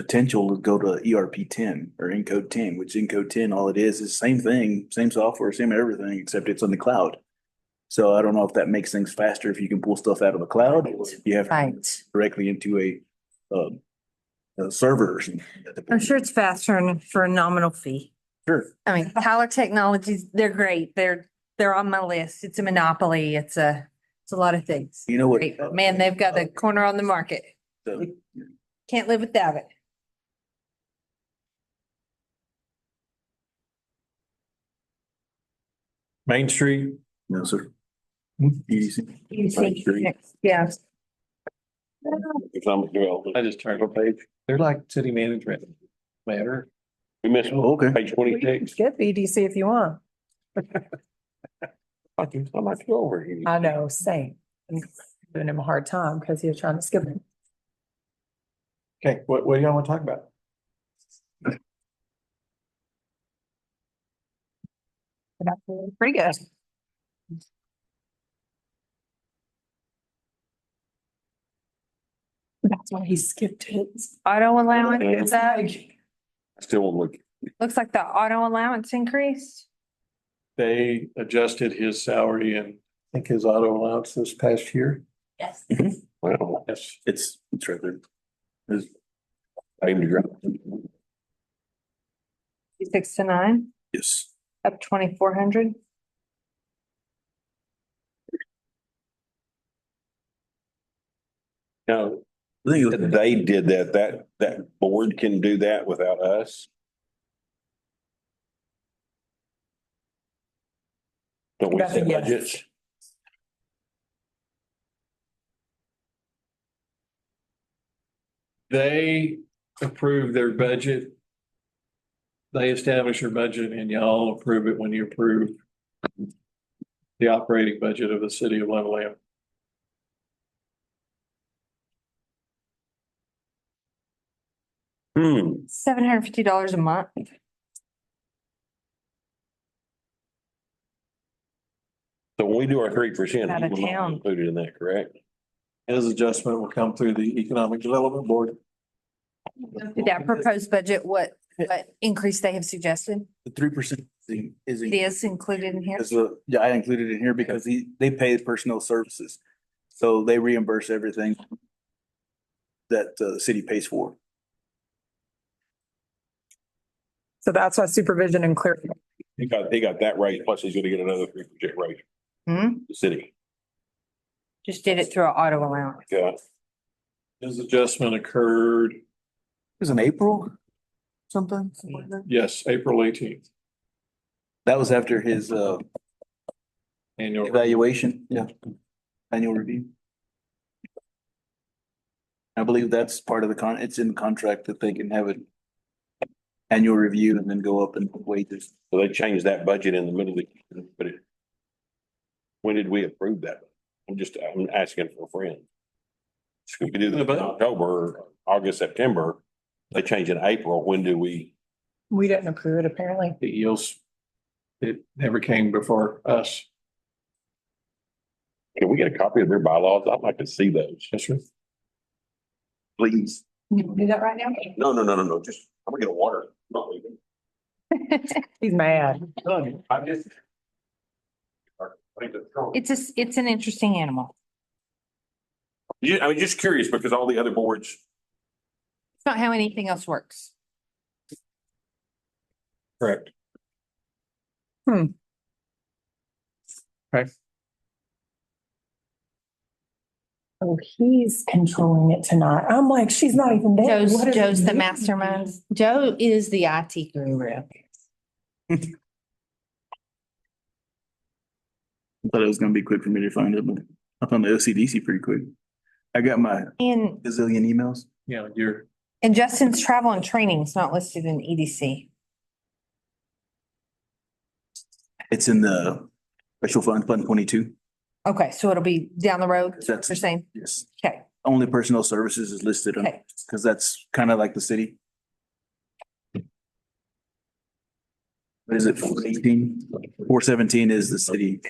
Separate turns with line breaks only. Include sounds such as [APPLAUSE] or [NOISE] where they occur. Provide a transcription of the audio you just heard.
potential to go to ERP ten or Encode ten, which Encode ten, all it is, is same thing, same software, same everything, except it's on the cloud. So I don't know if that makes things faster, if you can pull stuff out of the cloud, or if you have to
Right.
directly into a, um, a server or something.
I'm sure it's faster and for a nominal fee.
Sure.
I mean, Tyler Technologies, they're great. They're, they're on my list. It's a monopoly. It's a, it's a lot of things.
You know what? Uh,
Great. But Man, they've got the corner on the market.
So-
Can't live without it.
Main Street,
No, sir. E Easy.
You
see.
Yeah.
economic development.
I just turned,
What page?
they're like city management matter.
We missed
Oh, Okay.
page twenty-six.
Get EDC if you want.
[LAUGHS] I can, I might go over here.
I know, same. I'm giving him a hard time because he was trying to skip it.
Okay, what, what do y'all want to talk about?
But I feel Pretty good. That's why he skipped it.
Auto allowance, is up.
Still on look.
looks like the auto allowance increased.
They adjusted his salary and I think his auto allowance this past year.
Yes.
Mm-hmm.
Wow,
Yes.
It's, it's right there.
aim to grab.
Six to nine,
Yes.
up twenty-four hundred.
Now,
I think it was-
they did that, that, that board can do that without us. Don't we set
Yes.
budgets?
They approve their budget. They establish your budget and y'all approve it when you approve the operating budget of the city of Level Land.
Hmm,
Seven hundred and fifty dollars a month.
so when we do our three percent,
Out
you
of
will not
town.
be included in that, correct?
His adjustment will come through the Economic Development Board.
Did that proposed budget, what, what increase they have suggested
The three percent thing is.
It is included in here?
Is the, yeah, I included it in here because he, they pay personal services. So they reimburse everything that uh, the city pays for.
So that's why supervision and clear,
He got, he got that right, plus he's gonna get another three percent raise,
Hmm,
the city.
just did it through an auto allowance.
Yeah,
His adjustment occurred,
It was in April, something. something like that.
yes, April eighteenth,
That was after his uh,
annual.
evaluation. Yeah. Annual review. I believe that's part of the con, it's in the contract that they can have an annual review and then go up in wages.
so they changed that budget in the middle of the, but it. When did we approve that? I'm just, I'm asking for a friend. So We could do this in October, August, September, they change in April, when do we?
we didn't approve it apparently.
The yields, E it never came before us.
Can we get a copy of their bylaws? I'd like to see those.
Yes, sir.
Please.
You wanna do that right now?
No, no, no, no, no, just, I'm gonna get a water. I'm not leaving.
He's mad.
I'm just. I think that's-
It's a, s- it's an interesting animal.
Yeah, I mean, just curious because all the other boards,
It's not how anything else works.
Correct.
Hmm.
Okay.
Oh, he's controlling it tonight. I'm like, she's not even there.
Joe's,
What is-
Joe's the mastermind. Joe is the IT guru.
Thought it was gonna be quick for me to find it, but I found the OCDC pretty quick. I got my
And,
gazillion emails.
You know, you're,
and Justin's travel and training is not listed in E EDC.
It's in the special fund, fund twenty-two.
Okay, so it'll be down the road, is what
That's-
you're saying?
Yes.
Okay,
Only personal services is listed on,
okay.
because that's kind of like the city. What is it, four eighteen? Four seventeen is the city.